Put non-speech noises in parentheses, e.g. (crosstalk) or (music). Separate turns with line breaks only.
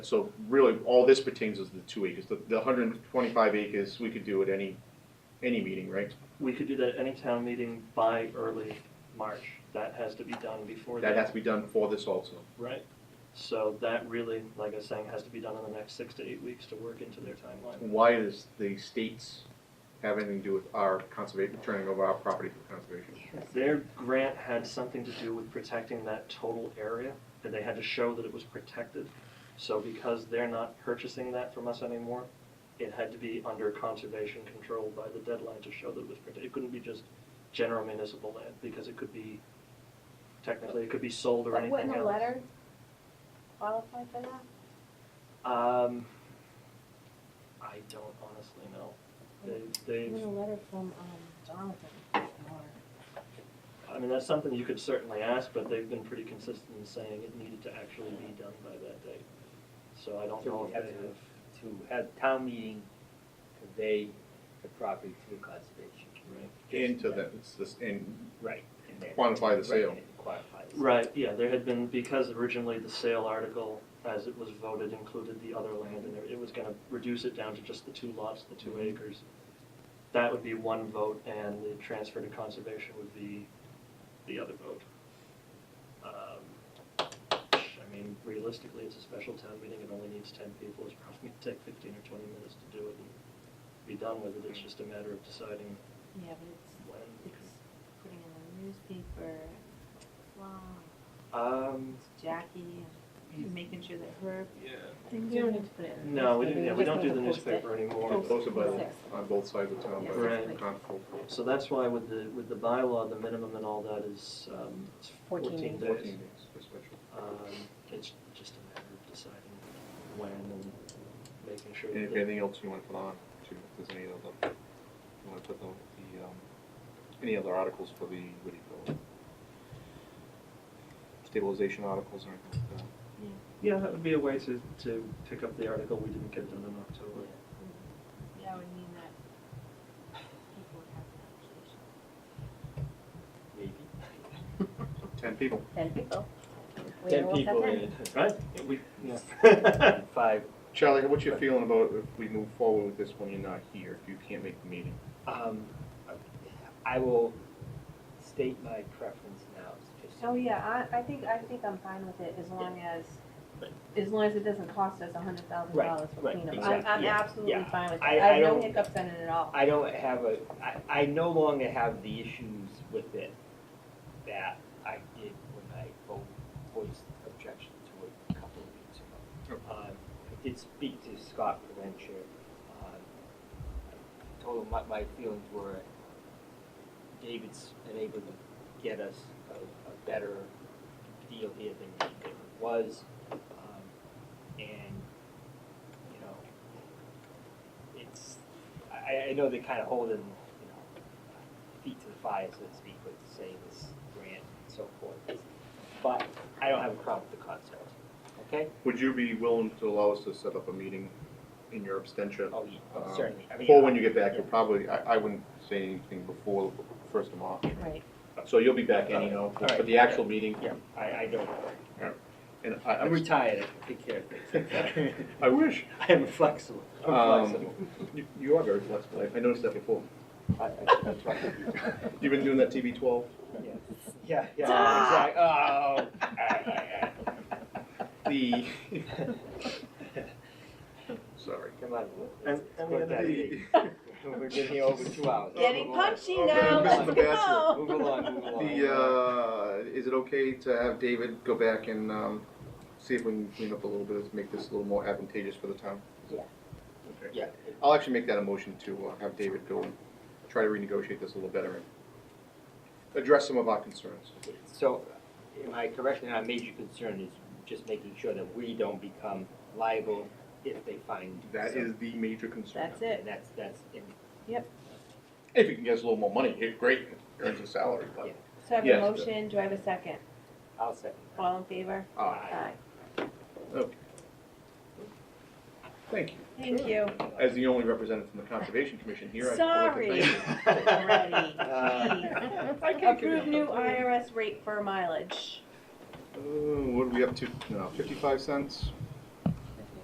So really, all this pertains is the two acres, the, the hundred and twenty-five acres, we could do at any, any meeting, right?
We could do that any town meeting by early March. That has to be done before
That has
that,
to be done for this also.
right? So that really, like I was saying, has to be done in the next six to eight weeks to work into their timeline.
Why does the states have anything to do with our conservation, turning over our property for conservation?
Their grant had something to do with protecting that total area, and they had to show that it was protected. So because they're not purchasing that from us anymore, it had to be under conservation control by the deadline to show that it was protected. It couldn't be just general municipal land, because it could be, technically, it could be sold or
But
anything else.
wouldn't a letter qualify for that?
Um, I don't honestly know. They, they,
Even a letter from, um, Jonathan, or,
I mean, that's something you could certainly ask, but they've been pretty consistent in saying it needed to actually be done by that date. So I don't
So
know
we
if
have
they
to-
have,
to have town meeting convey the property to the conservation.
right?
Into the, it's this, and
Right. and then-
Quantify the sale.
Right, and Quantify the sale.
Right, yeah, there had been, because originally the sale article, as it was voted, included the other land, and it was gonna reduce it down to just the two lots, the two acres. That would be one vote, and the transfer to conservation would be the other vote. Um, I mean, realistically, it's a special town meeting, it only needs ten people, it's probably gonna take fifteen or twenty minutes to do it and be done with it, it's just a matter of deciding
yeah, but
when.
it's, it's putting in the newspaper, wow,
Um,
it's Jackie, and making sure that her,
yeah.
I think you don't need to put it in. the
No, we
newspaper,
didn't, yeah,
you
we
just
don't do
have
the
to post it.
newspaper anymore.
Post-
posted by, the-
Six.
on both sides of town, by the
Right.
constable.
So that's why with the, with the bylaw, the minimum and all that is, um, it's
Fourteen
fourteen
days.
Fourteen
days.
days for special.
Um, it's just a matter of deciding when and making sure
And if
that,
anything else you wanna put on, too, if there's any other, you wanna put the, the, um, any other articles for the, what do you call it? Stabilization articles or anything like that.
yeah, that would be a way to, to pick up the article we didn't get done in October. (laughs)
Yeah, I would mean that people would have that application.
Maybe.
Ten people.
Ten people. We
Ten
are all
people
set
in it.
Right? We,
Yeah. (laughs) Five,
Charlie, what's your feeling about if we move forward with this when you're not here, if you can't make the meeting?
um, I will state my preference now, just
Oh, yeah, I, I think, I think I'm fine with it as long as,
Right.
as long as it doesn't cost us a hundred thousand dollars for
right,
cleanup. I'm,
exactly,
I'm
yeah,
absolutely
yeah.
fine with it.
I-
I
I
have no
don't-
hiccups in it at all.
I don't have a, I, I no longer have the issues with it that I did when I vo- voiced objection to it a couple of weeks ago. Um, I did speak to Scott Provencher. Um, I told him what my feelings were. David's been able to get us a, a better deal here than he did- was. Um, and, you know, it's, I, I know they're kind of holding, you know, feet to the fire, so to speak, with saying this grant and so forth. But I don't have a problem with the concept, okay?
Would you be willing to allow us to set up a meeting in your abstention?
Oh,
Um,
yeah, certainly. I mean, uh,
Before when you get back, you'll probably, I, I wouldn't say anything before first of March.
Right.
So you'll be back anyhow,
All right.
for the actual meeting.
Yeah, I, I don't,
And I,
I'm
I'm,
retired, I can take care of
(laughs)
things. (laughs)
I wish.
I'm flexible, I'm
Um,
flexible.
You- You are very flexible. I- I noticed that before.
I- I- I'm flexible.
You've been doing that TB twelve?
Yeah, Oh, Yeah, yeah, exactly, oh.
The, (laughs) sorry.
Come on.
And- and the other-
The-
We've been here over two hours.
Getting
Move along.
punchy
Oh,
now,
Mr.
let's
Bachelor.
go.
Move along, move along.
The, uh, is it okay to have David go back and, um, see if we can clean up a little bit, make this a little more advantageous for the town?
Yeah.
Okay.
Yeah,
I'll actually make that a motion to uh, have David go and try to renegotiate this a little better and address some of our concerns.
So, am I correct, and our major concern is just making sure that we don't become liable if they find.
That
something.
is the major concern.
That's it.
And that's, that's, in-
If you can get us a little more money, eh, great, earns a salary, but.
Yeah.
(laughs) So I have a
Yes.
motion, do I have a second?
I'll second.
All in favor?
Ah, okay. Thank you.
Thank
(laughs)
you.
As the only representative from the Conservation Commission here, I would like to
(laughs) Sorry.
thank you.
Already,
Uh,
please. Approve new IRS rate for mileage.
Uh, what are we up to now? Fifty-five cents?